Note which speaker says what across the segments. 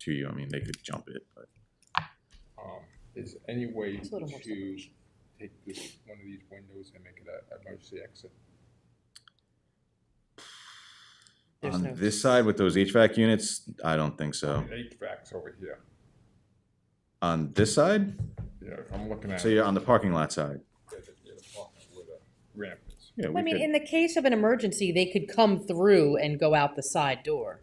Speaker 1: to you. I mean, they could jump it, but.
Speaker 2: Um, is any way
Speaker 3: It's a little more
Speaker 2: to take this, one of these windows and make it a a emergency exit?
Speaker 3: There's
Speaker 1: On
Speaker 3: no-
Speaker 1: this side with those HVAC units, I don't think so.
Speaker 2: HVAC's over here,
Speaker 1: On this side?
Speaker 2: yeah, if I'm looking at.
Speaker 1: So you're on the parking lot side?
Speaker 2: yeah, the- yeah, the apartment where the Ramp is.
Speaker 1: Yeah,
Speaker 3: I
Speaker 1: we
Speaker 3: mean,
Speaker 1: could,
Speaker 3: in the case of an emergency, they could come through and go out the side door.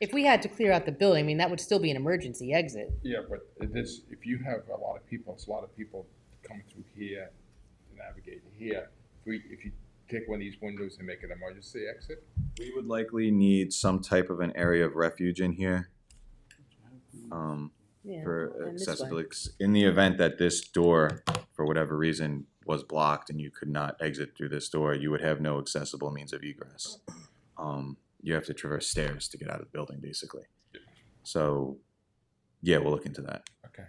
Speaker 3: If we had to clear out the building, I mean, that would still be an emergency exit.
Speaker 2: Yeah, but it is, if you have a lot of people, it's a lot of people coming through here, to navigate here. If we, if you take one of these windows and make an emergency exit,
Speaker 1: we would likely need some type of an area of refuge in here. Um,
Speaker 3: Yeah,
Speaker 1: for
Speaker 3: and this way.
Speaker 1: accessibility, 'cause in the event that this door, for whatever reason, was blocked and you could not exit through this door, you would have no accessible means of egress. Um, you have to traverse stairs to get out of the building, basically. So, yeah, we'll look into that.
Speaker 2: okay.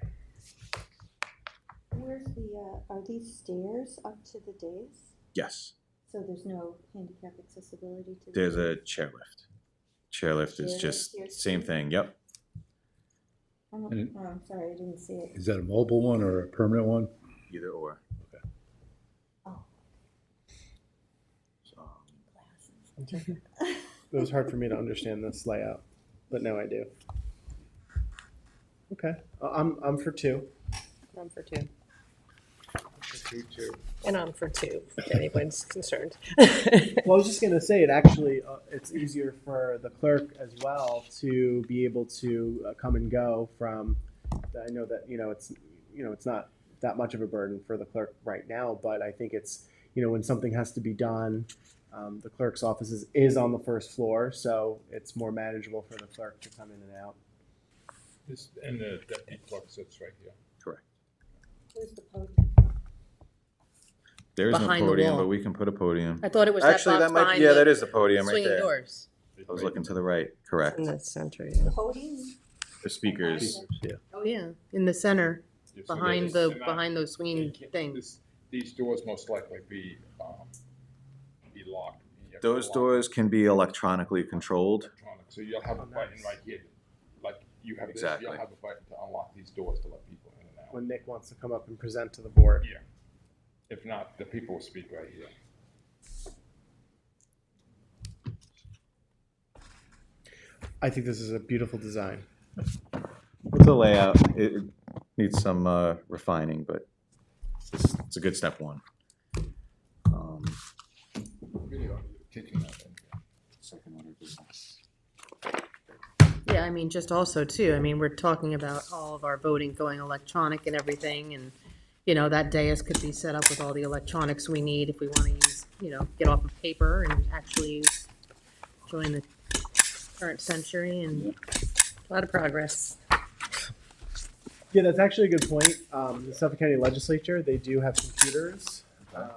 Speaker 4: Where's the, uh, are these stairs up to the dais?
Speaker 1: Yes,
Speaker 4: So there's no handicap accessibility to the
Speaker 1: there's a
Speaker 4: dais?
Speaker 1: chairlift. Chairlift is
Speaker 4: Chairlift
Speaker 1: just
Speaker 4: here.
Speaker 1: same thing, yep.
Speaker 4: I'm,
Speaker 5: And it-
Speaker 4: oh, I'm sorry, I didn't see it.
Speaker 5: Is that a mobile one or a permanent one?
Speaker 1: Either or.
Speaker 4: Oh.
Speaker 1: So,
Speaker 6: It was hard for me to understand this layout, but now I do. Okay, I- I'm, I'm for two.
Speaker 7: I'm for two.
Speaker 2: Two, two.
Speaker 7: And I'm for two, if anyone's concerned.
Speaker 6: Well, I was just gonna say, it actually, uh, it's easier for the clerk as well to be able to uh, come and go from, I know that, you know, it's, you know, it's not that much of a burden for the clerk right now, but I think it's, you know, when something has to be done, um, the clerk's office is, is on the first floor, so it's more manageable for the clerk to come in and out.
Speaker 2: This, and the deputy clerk sits right here.
Speaker 4: Where's the podium?
Speaker 1: There is no
Speaker 3: Behind the
Speaker 1: podium,
Speaker 3: wall.
Speaker 1: but we can put a podium.
Speaker 3: I thought it was that
Speaker 1: Actually,
Speaker 3: box
Speaker 1: that might,
Speaker 3: behind
Speaker 1: yeah, that
Speaker 3: the
Speaker 1: is the podium right
Speaker 3: swinging
Speaker 1: there.
Speaker 3: doors.
Speaker 1: I was looking to the right, correct.
Speaker 7: In the center,
Speaker 4: The
Speaker 7: yeah.
Speaker 4: podium?
Speaker 1: The speakers,
Speaker 3: Oh, yeah, in the center,
Speaker 2: Yeah, so
Speaker 3: behind
Speaker 2: there's-
Speaker 3: the,
Speaker 2: and I-
Speaker 3: behind those
Speaker 2: Yeah,
Speaker 3: swinging
Speaker 2: yeah,
Speaker 3: things.
Speaker 2: this- These doors most likely be, um, be locked. You have to
Speaker 1: those
Speaker 2: lock
Speaker 1: doors can be electronically controlled.
Speaker 2: electronic, So you'll have a
Speaker 6: Oh,
Speaker 2: button
Speaker 6: nice.
Speaker 2: right here, like you have this,
Speaker 1: Exactly.
Speaker 2: you'll have a button to unlock these doors to let people in and out.
Speaker 6: When Nick wants to come up and present to the board.
Speaker 2: Yeah. If not, the people will speak right here.
Speaker 6: I think this is a beautiful design.
Speaker 1: The layout, it it needs some uh, refining, but it's, it's a good step one. Um,
Speaker 2: Video, kitchen, I think.
Speaker 3: Yeah, I mean, just also too, I mean, we're talking about all of our voting going electronic and everything, and, you know, that dais could be set up with all the electronics we need if we want to use, you know, get off of paper and actually join the current century and a lot of progress.
Speaker 6: Yeah, that's actually a good point. Um, the Suffolk County Legislature, they do have computers, um,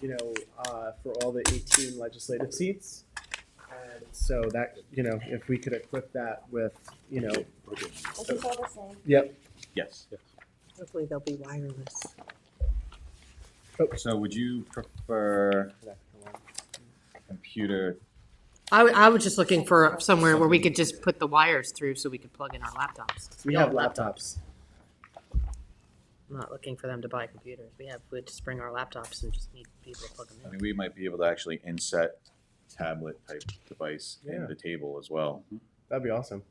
Speaker 6: you know, uh, for all the 18 legislative seats. And so that, you know, if we could equip that with, you know,
Speaker 4: This is all the same.
Speaker 6: yep.
Speaker 1: Yes.
Speaker 7: Hopefully they'll be wireless.
Speaker 1: So would you prefer computer?
Speaker 3: I, w- I was just looking for somewhere where we could just put the wires through so we could plug in our laptops.
Speaker 6: We have laptops.
Speaker 3: I'm not looking for them to buy computers. We have, we just bring our laptops and just need people to plug them
Speaker 1: I
Speaker 3: in.
Speaker 1: mean, we might be able to actually inset tablet type device in
Speaker 6: Yeah.
Speaker 1: the table as well.
Speaker 6: That'd be awesome.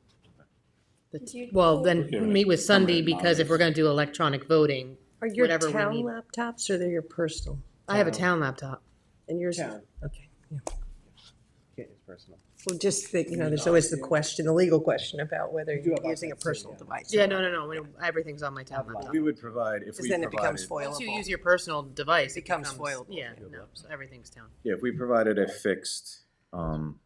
Speaker 3: The
Speaker 4: Did
Speaker 3: t-
Speaker 4: you-
Speaker 3: Well, then meet with Sunday because if we're going to do electronic voting,
Speaker 7: Are your
Speaker 3: Whatever we
Speaker 7: town
Speaker 3: need.
Speaker 7: laptops or they're your personal?
Speaker 3: I have a town laptop.
Speaker 7: And yours is,
Speaker 6: Town.
Speaker 7: okay. yeah.
Speaker 6: Can't use personal.
Speaker 7: Well, just that, you know, there's always the question, the legal question about whether
Speaker 6: We do
Speaker 7: you're
Speaker 6: have
Speaker 7: using a
Speaker 6: iPads too,
Speaker 7: personal
Speaker 6: yeah.
Speaker 7: device.
Speaker 3: Yeah, no, no, no. when- Everything's on my tablet.
Speaker 6: Tablet.
Speaker 3: laptop.
Speaker 1: We would provide, if
Speaker 7: Because
Speaker 1: we
Speaker 7: then it becomes
Speaker 1: provided,
Speaker 3: Once you use
Speaker 7: foilable.
Speaker 3: your personal device, it
Speaker 7: Becomes
Speaker 3: becomes
Speaker 7: foilable.
Speaker 3: Yeah, no, so everything's down.
Speaker 1: yeah, if we provided a fixed, um,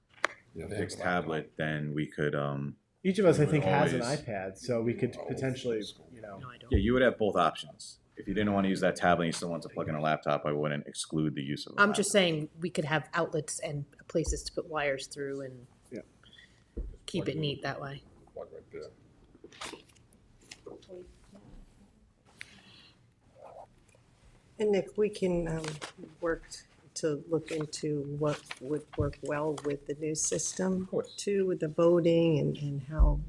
Speaker 2: Yeah, they
Speaker 1: fixed
Speaker 2: have a lot of-
Speaker 1: tablet, then we could, um,
Speaker 6: Each of us, I
Speaker 1: We would
Speaker 6: think, has an
Speaker 1: always-
Speaker 6: iPad, so we could potentially, you know.
Speaker 3: No, I don't.
Speaker 1: yeah, you would have both options. If you didn't want to use that tablet, and you still want to plug in a laptop, I wouldn't exclude the use of a
Speaker 3: I'm just
Speaker 1: laptop.
Speaker 3: saying we could have outlets and places to put wires through and
Speaker 6: Yeah.
Speaker 3: keep it neat that way.
Speaker 2: Plug right there.
Speaker 7: And Nick, we can um, work to look into what would work well with the new system.
Speaker 2: course.
Speaker 7: Too, with the voting and, and how